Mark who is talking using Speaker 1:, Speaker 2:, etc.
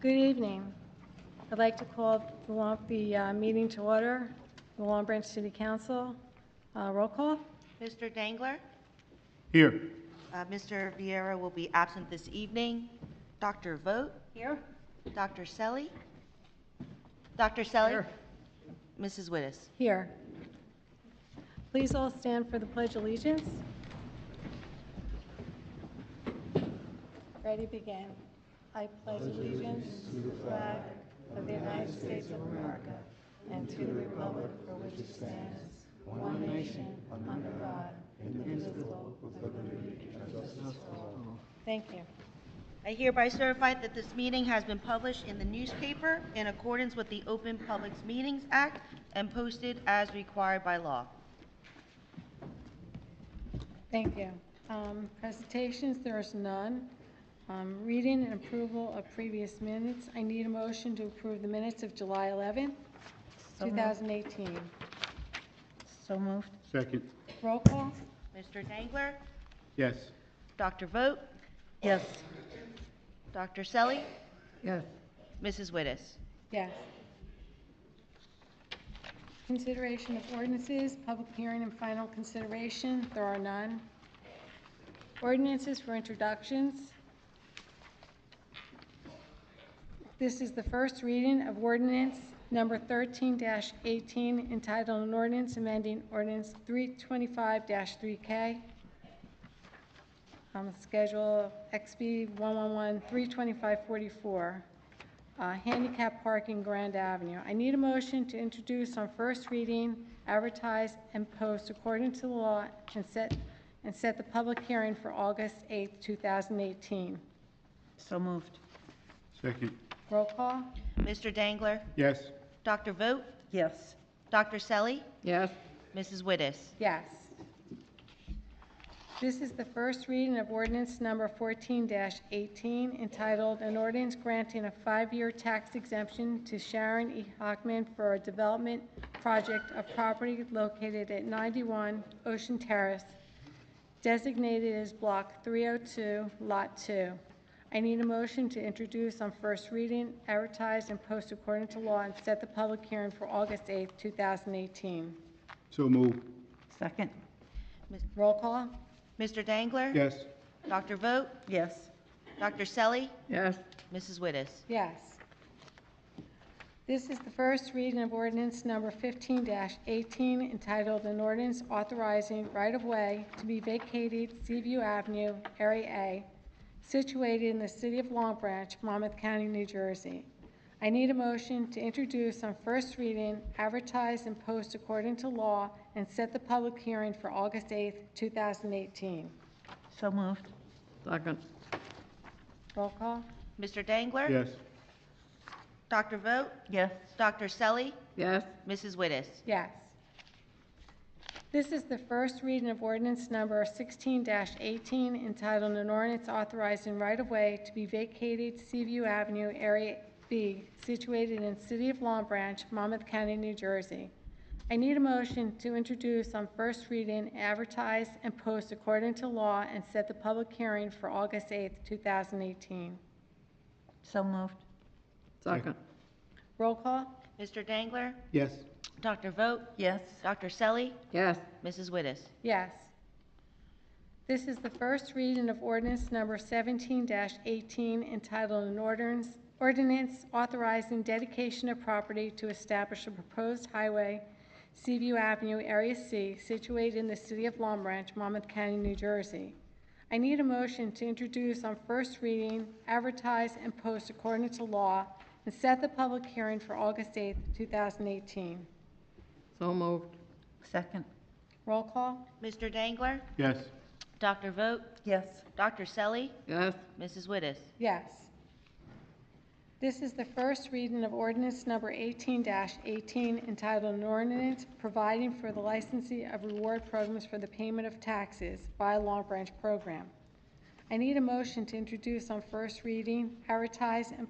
Speaker 1: Good evening. I'd like to call the Long- the uh, meeting to order, the Long Branch City Council. Uh, Roll call?
Speaker 2: Mr. Dangler?
Speaker 3: Here.
Speaker 2: Uh, Mr. Vieira will be absent this evening. Dr. Vogt? Here. Dr. Selly? Dr. Selly? Mrs. Wittes?
Speaker 1: Here. Please all stand for the Pledge of Allegiance. Ready, begin. I pledge allegiance to the flag of the United States of America and to the republic for which it stands, one nation, under God, indivisible, with liberty and justice for all. Thank you.
Speaker 2: I hereby certify that this meeting has been published in the newspaper in accordance with the Open Public Meetings Act and posted as required by law.
Speaker 1: Thank you. Um, Presentations, there is none. Um, Reading and approval of previous minutes, I need a motion to approve the minutes of July 11th, 2018.
Speaker 2: So moved.
Speaker 3: Second.
Speaker 1: Roll call?
Speaker 2: Mr. Dangler?
Speaker 3: Yes.
Speaker 2: Dr. Vogt? Yes. Dr. Selly?
Speaker 1: Yes.
Speaker 2: Mrs. Wittes?
Speaker 1: Yes. Consideration of ordinances, public hearing and final consideration, there are none. Ordinances for introductions. This is the first reading of ordinance number 13-18 entitled an ordinance amending ordinance 325-3K um, Schedule XB 111-325-44, uh, handicap parking Grand Avenue. I need a motion to introduce on first reading, advertise, and post according to the law, and set, and set the public hearing for August 8th, 2018.
Speaker 2: So moved.
Speaker 3: Second.
Speaker 1: Roll call?
Speaker 2: Mr. Dangler?
Speaker 3: Yes.
Speaker 2: Dr. Vogt? Yes. Dr. Selly?
Speaker 4: Yes,
Speaker 2: Mrs. Wittes?
Speaker 1: Yes. This is the first reading of ordinance number 14-18 entitled, "An Ordinance Granting a Five-Year Tax Exemption to Sharon E. Hockman for a Development Project of Property Located at 91 Ocean Terrace, Designated as Block 302, Lot 2." I need a motion to introduce on first reading, advertise, and post according to law, and set the public hearing for August 8, 2018.
Speaker 3: So move.
Speaker 4: second,
Speaker 1: Roll call?
Speaker 2: Mr. Dangler?
Speaker 3: Yes.
Speaker 2: Dr. Vogt?
Speaker 4: yes,
Speaker 2: Dr. Selly?
Speaker 4: yes,
Speaker 2: Mrs. Wittes?
Speaker 1: Yes. This is the first reading of ordinance number 15-18 entitled an ordinance authorizing right-of-way to be vacated Seaview Avenue, Area A, situated in the city of Long Branch, Monmouth County, New Jersey. I need a motion to introduce on first reading, advertise and post according to law, and set the public hearing for August 8th, 2018.
Speaker 2: So moved.
Speaker 4: second,
Speaker 1: Roll call?
Speaker 2: Mr. Dangler?
Speaker 3: Yes.
Speaker 2: Dr. Vogt?
Speaker 4: yes,
Speaker 2: Dr. Selly?
Speaker 4: yes,
Speaker 2: Mrs. Wittes?
Speaker 1: Yes. This is the first reading of ordinance number 16-18 entitled an ordinance authorizing right-of-way to be vacated Seaview Avenue, Area B, situated in City of Long Branch, Monmouth County, New Jersey. I need a motion to introduce on first reading, advertise, and post according to law, and set the public hearing for August 8th, 2018.
Speaker 2: So moved.
Speaker 4: second,
Speaker 1: Roll call?
Speaker 2: Mr. Dangler?
Speaker 3: Yes.
Speaker 2: Dr. Vogt?
Speaker 4: yes,
Speaker 2: Dr. Selly?
Speaker 4: yes,
Speaker 2: Mrs. Wittes?
Speaker 1: Yes. This is the first reading of ordinance number 17-18 entitled an ordinance, ordinance authorizing dedication of property to establish a proposed highway, Seaview Avenue, Area C, situated in the city of Long Branch, Monmouth County, New Jersey. I need a motion to introduce on first reading, advertise, and post according to law, and set the public hearing for August 8th, 2018.
Speaker 4: so moved,
Speaker 2: Second.
Speaker 1: Roll call?
Speaker 2: Mr. Dangler?
Speaker 3: Yes.
Speaker 2: Dr. Vogt?
Speaker 4: yes,
Speaker 2: Dr. Selly?
Speaker 4: yes,
Speaker 2: Mrs. Wittes?
Speaker 1: Yes. This is the first reading of ordinance number 18-18 entitled an ordinance providing for the licensee of reward programs for the payment of taxes by a Long Branch program. I need a motion to introduce on first reading, advertise, and